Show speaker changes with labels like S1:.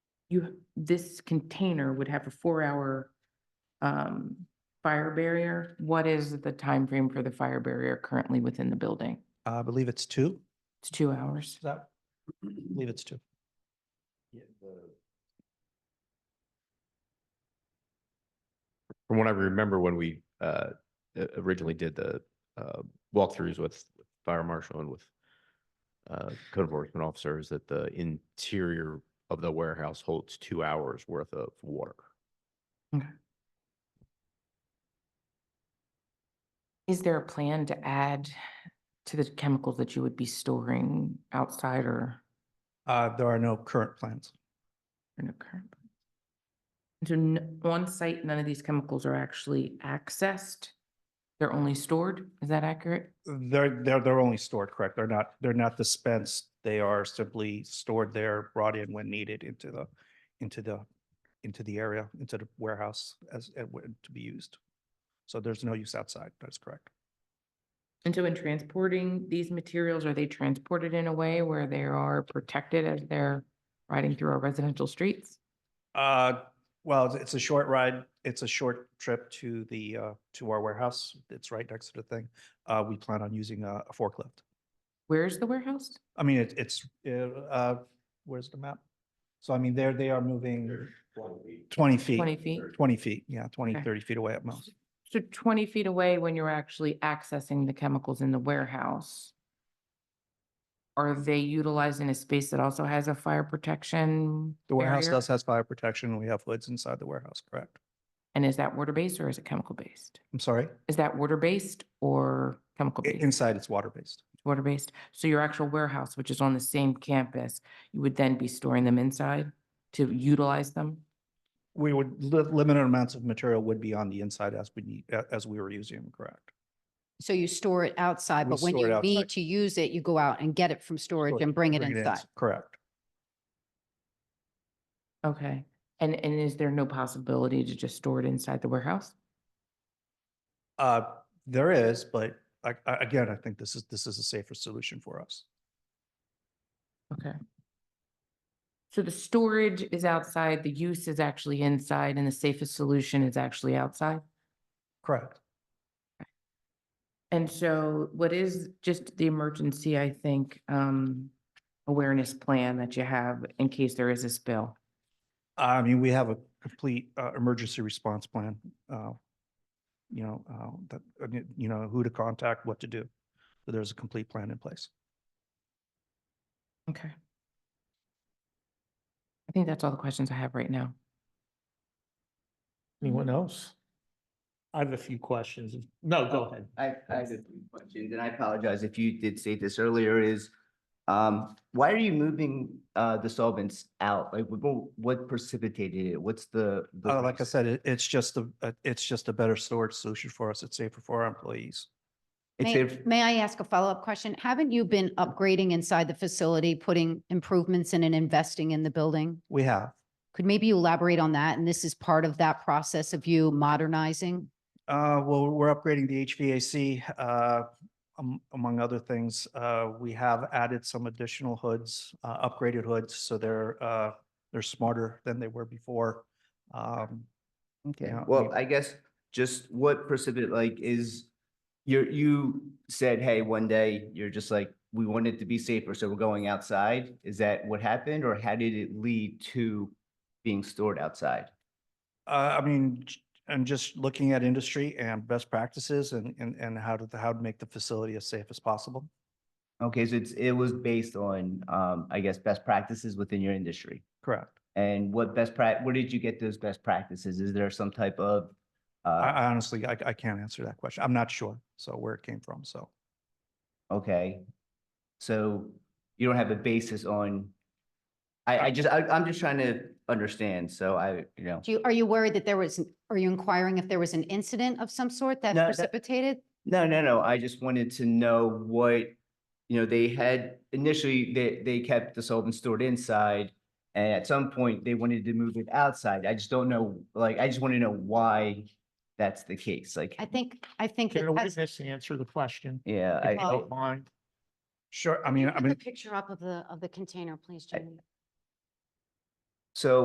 S1: you, this container would have a four-hour um, fire barrier. What is the time frame for the fire barrier currently within the building?
S2: I believe it's two.
S1: It's two hours.
S2: Is that? I believe it's two.
S3: From what I remember when we uh o- originally did the uh walkthroughs with fire marshal and with uh code enforcement officers, that the interior of the warehouse holds two hours worth of water.
S1: Is there a plan to add to the chemicals that you would be storing outside or
S2: Uh, there are no current plans.
S1: in a current? So n- on site, none of these chemicals are actually accessed? They're only stored? Is that accurate?
S2: They're, they're, they're only stored, correct? They're not, they're not dispensed. They are simply stored there, brought in when needed into the, into the, into the area, into the warehouse as, uh, where- to be used. So there's no use outside. That's correct.
S1: And so in transporting these materials, are they transported in a way where they are protected as they're riding through our residential streets?
S2: Uh, well, it's- it's a short ride. It's a short trip to the, uh, to our warehouse. It's right next to the thing. Uh, we plan on using a a forklift.
S1: Where's the warehouse?
S2: I mean, it- it's, uh, uh, where's the map? So I mean, there, they are moving twenty
S1: Twenty
S2: feet,
S1: feet?
S2: twenty feet, yeah, 20, 30
S1: Okay.
S2: feet away at most.
S1: So twenty feet away when you're actually accessing the chemicals in the warehouse? Are they utilizing a space that also has a fire protection?
S2: The warehouse
S1: barrier?
S2: does has fire protection. We have hoods inside the warehouse, correct?
S1: And is that water-based or is it chemical-based?
S2: I'm sorry,
S1: Is that water-based or
S2: I-
S1: chemical-based?
S2: inside it's water-based.
S1: water-based. So your actual warehouse, which is on the same campus, you would then be storing them inside to utilize them?
S2: We would, li- limited amounts of material would be on the inside as we need, a- as we were using them, correct?
S4: So you store it outside,
S2: We
S4: but when
S2: store it
S4: you
S2: outside.
S4: need to use it, you go out and get it from storage
S2: Storage,
S4: and bring it
S2: Bring it in,
S4: inside.
S2: Correct.
S1: Okay. And, and is there no possibility to just store it inside the warehouse?
S2: Uh, there is, but I, I, again, I think this is, this is a safer solution for us.
S1: Okay. So the storage is outside, the use is actually inside, and the safest solution is actually outside?
S2: Correct.
S1: And so what is just the emergency, I think, um, awareness plan that you have in case there is a spill?
S2: I mean, we have a complete uh, emergency response plan. uh, You know, uh, that, uh, y- you know, who to contact, what to do. So There's a complete plan in place.
S1: Okay. I think that's all the questions I have right now.
S5: Anyone else? I have a few questions. No, go ahead.
S6: I, I have a few questions, and I apologize if you did say this earlier, is, um, why are you moving, uh, the solvents out? Like, what, what precipitated it? What's the? the
S2: Uh, Like I
S6: risk?
S2: said, it- it's just a, a- it's just a better storage solution for us. It's safer for our employees.
S6: It's
S4: May,
S6: if-
S4: may I ask a follow-up question? Haven't you been upgrading inside the facility, putting improvements in and investing in the building?
S2: We have.
S4: Could maybe you elaborate on that? And this is part of that process of you modernizing?
S2: Uh, well, we're upgrading the HVAC, uh, am- among other things. Uh, we have added some additional hoods, uh, upgraded hoods, so they're, uh, they're smarter than they were before. Um,
S6: Okay,
S2: Yeah,
S6: well,
S2: we-
S6: I guess just what precipitate, like, is, you're, you said, hey, one day, you're just like, we want it to be safer, so we're going outside? Is that what happened, or how did it lead to being stored outside?
S2: Uh, I mean, j- I'm just looking at industry and best practices and, and, and how to, how to make the facility as safe as possible.
S6: Okay, so it's, it was based on, um, I guess, best practices within your industry?
S2: Correct.
S6: And what best prac, where did you get those best practices? Is there some type of?
S2: I,
S6: uh,
S2: I honestly, I, I can't answer that question. I'm not sure. So where it came from, so.
S6: Okay, so you don't have a basis on, I, I just, I, I'm just trying to understand, so I, you know.
S4: Do you, are you worried that there was, an- are you inquiring if there was an incident of some sort that
S6: No, that-
S4: precipitated?
S6: No, no, no, I just wanted to know what, you know, they had initially, they, they kept the solvent stored inside. And at some point, they wanted to move it outside. I just don't know, like, I just want to know why that's the case, like,
S4: I think, I think. it
S5: Can a
S4: has-
S5: witness answer the question?
S6: yeah,
S5: if
S6: I.
S5: you
S6: I-
S5: don't mind?
S2: Sure, I
S4: Can you
S2: mean, I
S4: put the
S2: mean.
S4: Picture up of the, of the container, please,
S6: I-
S4: Jamie.
S6: So